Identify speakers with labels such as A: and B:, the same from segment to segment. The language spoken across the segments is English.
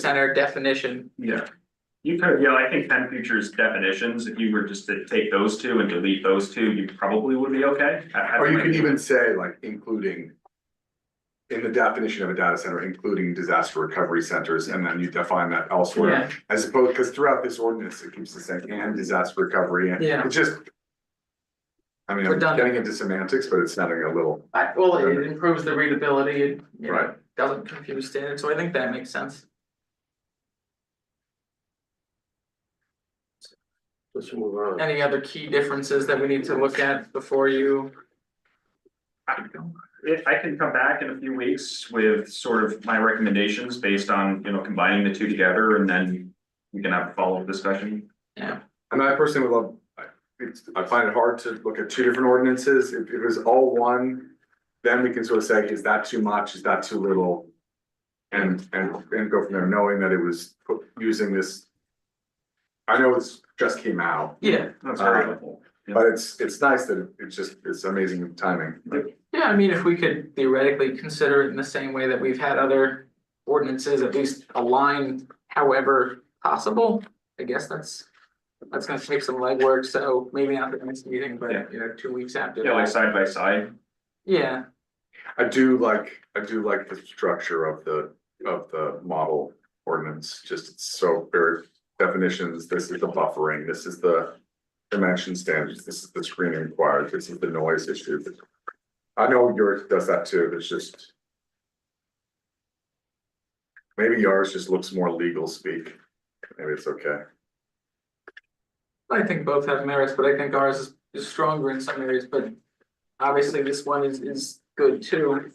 A: center definition.
B: Yeah. You could, yeah, I think Penn Futures definitions, if you were just to take those two and delete those two, you probably would be okay. I- I
C: Or you
B: think-
C: can even say like including. In the definition of a data center, including disaster recovery centers, and then you define that elsewhere.
A: Yeah.
C: As opposed, because throughout this ordinance, it keeps the same, and disaster recovery, and
A: Yeah.
C: it's just. I mean, I'm
A: Redundant.
C: getting into semantics, but it's sounding a little,
A: I, well, it improves the readability, it, you know,
C: Right.
A: doesn't confuse standards, so I think that makes sense.
D: Let's move on.
A: Any other key differences that we need to look at before you?
B: If I can come back in a few weeks with sort of my recommendations based on, you know, combining the two together and then. We can have a follow-up discussion.
C: and I personally would love, I, it's, I find it hard to look at two different ordinances, if it was all one. Then we can sort of say, is that too much, is that too little? And, and, and go from there, knowing that it was put- using this. I know it's just came out,
A: Yeah,
B: That's very
C: Uh,
B: helpful.
C: But it's, it's nice that it's just, it's amazing timing.
A: yeah, I mean, if we could theoretically consider it in the same way that we've had other ordinances, at least aligned however possible. I guess that's, that's gonna take some legwork, so maybe not the next meeting,
B: Yeah.
A: but you know, two weeks after.
B: Yeah, like
A: that.
B: side by side,
A: Yeah,
C: I do like, I do like the structure of the, of the model ordinance, just it's so very definitions, this is the buffering, this is the. Dimension standards, this is the screening required, this is the noise issue. I know yours does that too, but it's just. Maybe yours just looks more legal speak, maybe it's okay.
A: I think both have merits, but I think ours is, is stronger in some areas, but obviously this one is, is good too.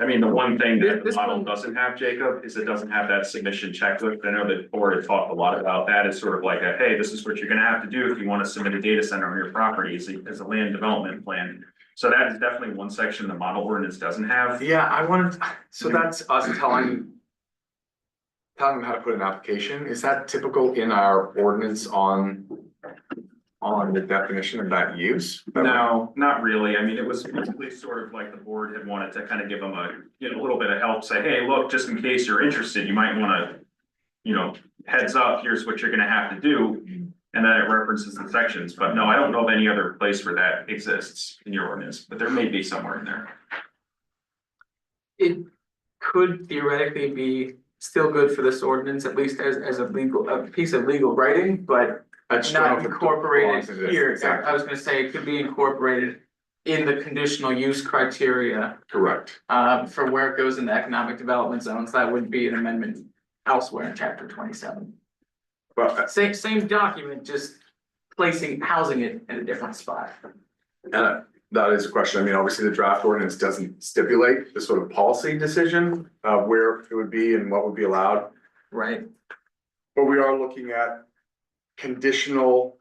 B: I mean, the one thing
A: This-
B: that the
A: this
B: model
A: one-
B: doesn't have, Jacob, is it doesn't have that submission checklist, I know that Ford had talked a lot about that, it's sort of like a, hey, this is what you're gonna have to do if you wanna submit a data center on your property as a, as a land development plan. So that is definitely one section the model ordinance doesn't have,
C: Yeah, I wanted,
A: Mm-hmm.
C: so that's us telling. Telling them how to put an application, is that typical in our ordinance on? On the definition of that use?
B: No, not really. I mean, it was basically sort of like the board had wanted to kind of give them a, you know, a little bit of help, say, hey, look, just in case you're interested, you might wanna. You know, heads up, here's what you're gonna have to do, and then it references the sections, but no, I don't know of any other place where that exists in your ordinance, but there may be somewhere in there.
A: It could theoretically be still good for this ordinance, at least as, as a legal, a piece of legal writing, but
C: That's
A: not incorporated here. I
C: Exactly,
A: was gonna say it could be incorporated in the conditional use criteria,
C: correct.
A: uh, for where it goes in the economic development zones. That would be an amendment elsewhere in chapter twenty-seven.
C: But,
A: Same, same document, just placing, housing it in a different spot.
C: and that is a question, I mean, obviously the draft ordinance doesn't stipulate the sort of policy decision. Of where it would be and what would be allowed,
A: Right.
C: But we are looking at conditional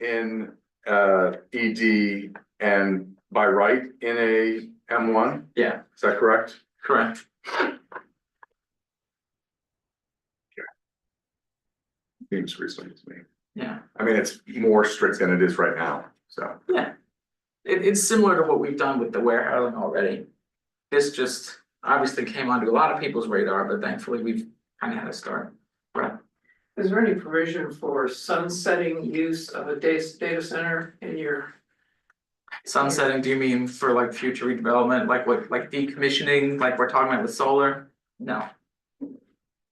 C: in uh ED and by right in a M one,
A: Yeah,
C: is that correct?
A: correct.
C: Seems reasonable to me.
A: Yeah.
C: I mean, it's more strict than it is right now, so.
A: It, it's similar to what we've done with the warehousing already. This just obviously came onto a lot of people's radar, but thankfully we've kind of had a start.
E: Is there any provision for sunsetting use of a data, data center in your,
A: Sunsetting, do you mean for like future redevelopment, like what, like decommissioning, like we're talking about with solar? No.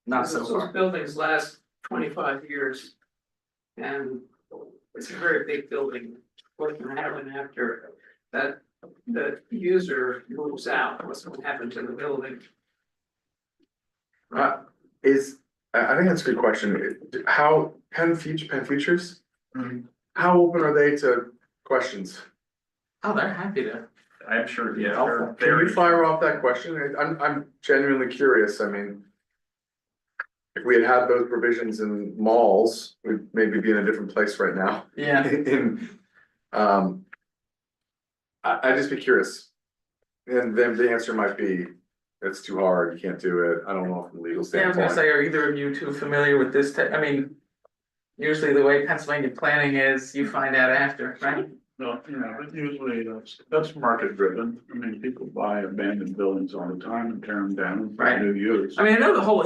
A: Not so
E: because those
A: far.
E: buildings last twenty-five years? And it's a very big building, what can happen after that, the user moves out, what's gonna happen to the building?
C: Uh, is, I I think that's a good question, It- how, Penn Future, Penn Futures? Mm-hmm.
A: Mhm.
C: How open are they to questions?
A: Oh, they're happy to.
B: I'm sure, yeah,
C: Can
B: they're
C: you
B: very,
C: fire off that question? I- I'm, I'm genuinely curious, I mean. If we had had those provisions in malls, we'd maybe be in a different place right now
A: Yeah.
C: in, um. I, I'd just be curious. And then the answer might be, it's too hard, you can't do it, I don't know from a legal
A: Yeah, I was gonna
C: standpoint.
A: say, are either of you two familiar with this, te- I mean, usually the way Pennsylvania planning is, you find out after, right?
D: No, yeah, but usually that's, that's market driven. I mean, people buy abandoned buildings all the time and tear them down. for
A: Right.
D: New use.
A: I mean, I know the whole